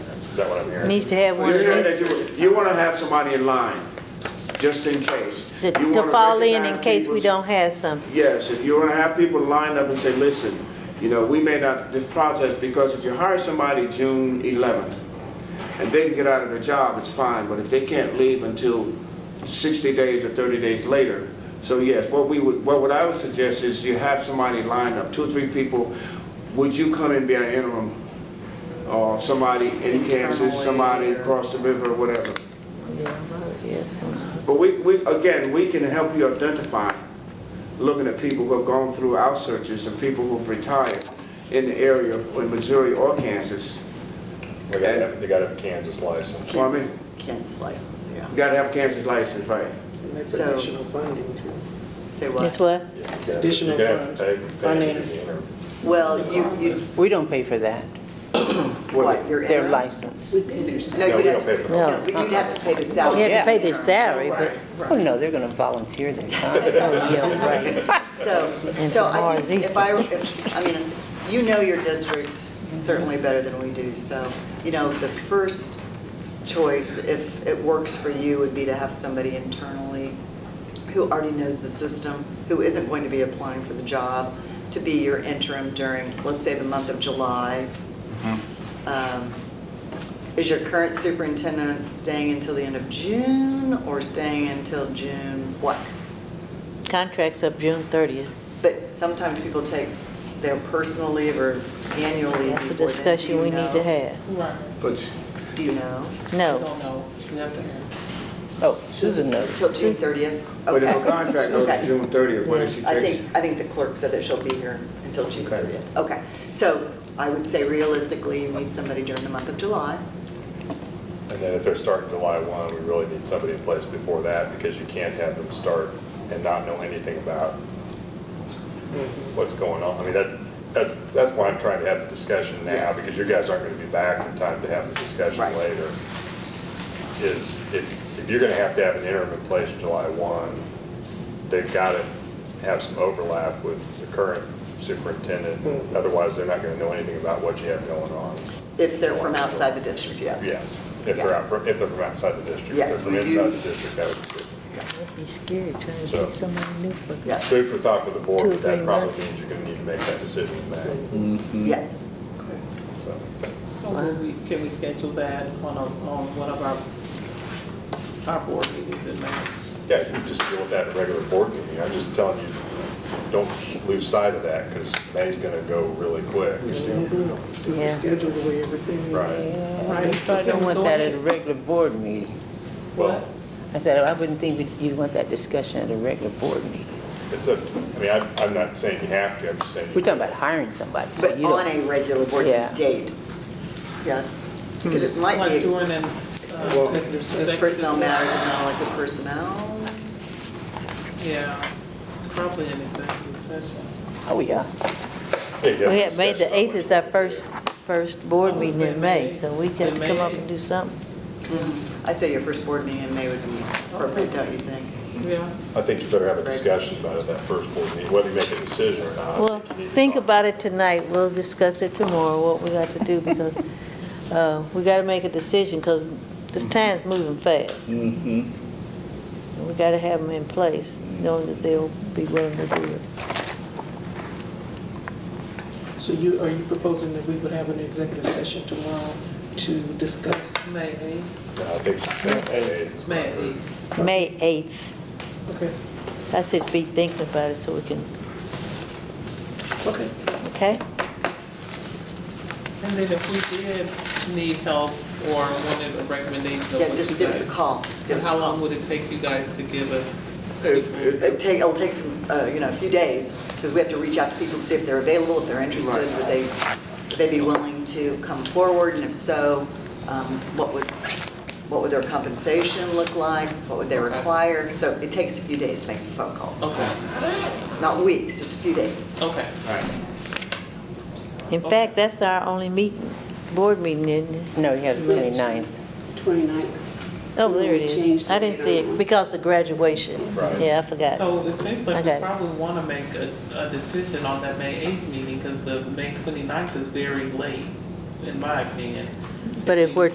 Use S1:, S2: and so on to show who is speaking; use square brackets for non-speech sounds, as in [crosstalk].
S1: that what I'm hearing?
S2: Needs to have one of
S3: You're gonna
S2: these.
S3: do- You want to have somebody in line, just in case.
S2: to-
S3: You
S2: To
S3: wanna
S2: fall in in
S3: recognize
S2: case we
S3: people's-
S2: don't have some.
S3: Yes, if you want to have people lined up and say, listen, you know, we may not, this process, because if you hire somebody June 11th, and they can get out of their job, it's fine, but if they can't leave until 60 days or 30 days later, so yes, what we would, what would I would suggest is you have somebody lined up, two or three people, would you come and be an interim? Or somebody in Kansas, somebody across the river, whatever.
S2: Yes,
S3: But we, we, again, we can help you identify, looking at people who have gone through our searches and people who've retired in the area in Missouri or Kansas.
S1: They gotta have, they gotta have a Kansas license.
S3: Well, I mean,
S4: Kansas license, yeah.
S3: you gotta have a Kansas license, right?
S5: And that's
S4: So-
S5: additional funding too.
S4: Say
S2: That's
S4: what?
S2: what?
S1: You gotta-
S5: Additional
S1: you gotta have to
S5: funds,
S1: pay- pay for
S5: finance.
S1: the interim.
S4: Well, you, you,
S6: We don't pay for that,
S4: what, your
S6: their
S4: interim?
S6: license.
S4: No,
S1: No,
S4: you'd
S1: we don't
S4: have,
S1: pay for the
S2: No. uh-uh.
S4: no, but you'd have to pay the salary.
S2: You have to pay
S4: of the
S2: their
S4: interim.
S2: salary, but
S6: Oh, no, they're going to volunteer their time. Oh, [laughs] yeah, right.
S4: So,
S2: And
S4: so
S2: for
S4: I
S2: ours,
S4: think if
S2: Easter.
S4: I, if, I mean, you know your district certainly better than we do, so, you know, the first choice, if it works for you, would be to have somebody internally who already knows the system, who isn't going to be applying for the job, to be your interim during, let's say, the month of July. Um, Is your current superintendent staying until the end of June, or staying until June what?
S2: contract's up June 30th.
S4: But sometimes people take their personal leave or annual leave.
S2: That's a
S4: before then. Do
S2: discussion
S4: you
S2: we need
S4: know?
S2: to have.
S7: Right,
S3: But
S4: Do you know?
S7: I
S2: No,
S7: don't know, you have to have.
S6: Oh, Susan knows.
S4: Till June 30th?
S3: But if a
S4: Okay.
S3: contract goes
S4: Okay.
S3: to June 30th, what if she
S4: I
S3: takes?
S4: think, I think the clerk said that she'll be here until June
S3: Okay.
S4: 30th. Okay. So I would say realistically, you need somebody during the month of July.
S1: And then if they're starting July 1, we really need somebody in place before that because you can't have them start and not know anything about
S4: Mm-hmm.
S1: what's going on. I mean, that, that's, that's why I'm trying to have the discussion now
S4: Yes.
S1: because you guys aren't going to be back in time to have the discussion
S4: Right.
S1: later. Is if, if you're going to have to have an interim in place July 1, they've got to have some overlap with the current
S4: Mm-hmm.
S1: superintendent. Otherwise, they're not going to know anything about what you have going on.
S4: If they're from outside the district, yes.
S1: Yes, if they're out, if they're from outside the district.
S4: Yes, we
S1: If
S4: do.
S1: they're from inside the district, that would be good.
S2: that'd be scary trying to
S1: So-
S2: get somebody new for
S4: Yes,
S1: Food for thought for the board,
S2: Two or
S1: but that
S2: three
S1: probably
S2: months.
S1: means you're gonna need to make that decision in May.
S4: yes.
S1: So,
S7: So will we, can we schedule that on a, on one of our, our board meetings in May?
S1: Yeah, you can just deal with that at a regular board meeting. I'm just telling you, don't lose sight of that, because May's gonna go really quick.
S5: Do the
S2: Yeah.
S5: schedule the way everything is.
S1: Right.
S4: Mm-hmm.
S7: Right, so
S6: I don't want
S7: go
S6: that at
S7: ahead.
S6: a regular board meeting.
S1: Well,
S6: I said, I wouldn't think that you'd want that discussion at a regular board meeting.
S1: it's a, I mean, I'm, I'm not saying you have to, I'm just saying. you
S6: We're talking about hiring somebody, so
S4: But
S6: you
S4: on
S6: don't.
S4: a regular board
S6: Yeah.
S4: date, yes. Because it might be.
S7: Like during an
S3: Well-
S7: uh, executive
S4: There's
S7: session.
S4: personnel matters and non-elected personnel.
S7: Yeah, probably an executive session.
S6: Oh, yeah.
S1: Yeah, you
S2: We
S1: have
S2: had
S1: a
S2: May the
S1: discussion about
S2: 8th
S1: what you
S2: is our
S1: wanna
S2: first,
S1: do.
S2: first
S7: I
S2: board
S7: would
S2: meeting
S7: say
S2: in May,
S7: May.
S2: so we have to
S7: In
S2: come up
S7: May.
S2: and do something.
S4: I'd say your first board meeting in May would be appropriate, don't you think?
S7: Yeah.
S1: I think you better have a discussion about it at that first board meeting, whether you make a decision or not. I
S2: Well,
S1: you need to
S2: think
S1: talk.
S2: about it tonight, we'll discuss it tomorrow, what we got to do, because [laughs] uh, we got to make a decision, because this time's moving fast. And
S1: Mm-hmm.
S2: We got to have them in place, knowing that they'll be willing to do it.
S5: So you, are you proposing that we would have an executive session tomorrow to discuss?
S7: May eighth,
S1: No, I think she said May 8th. is
S7: May
S1: fine.
S7: eighth.
S2: May 8th,
S5: Okay,
S2: I said be thinking about it so we can,
S5: okay.
S2: okay?
S7: And then if we did need help or wanted a recommendation of what you
S4: Yeah,
S7: guys.
S4: just give us a call. Give us a call.
S7: How long would it take you guys to give us?
S3: If- if-
S4: It'll take, it'll take some, uh, you know, a few days, because we have to reach out to people to see if they're available, if they're interested,
S3: Right.
S4: would they, would they be willing to come forward, and if so, um, what would, what would their compensation look like, what would they
S7: Okay.
S4: require? So it takes a few days to make some phone calls,
S7: Okay,
S4: not weeks, just a few days.
S7: okay.
S2: In fact, that's our only meeting, board meeting, isn't it?
S6: No, you have the 29th.
S8: 29th.
S2: Oh, there it
S8: We changed
S2: is.
S8: the
S2: I didn't see
S8: date
S2: it
S8: on-
S2: because of graduation.
S1: Right.
S2: Yeah, I forgot.
S7: So it seems like we
S2: Okay.
S7: probably want to make a, a decision on that May eighth meeting, because the May 29th is very late, in my opinion.
S2: But if
S7: we-
S2: we're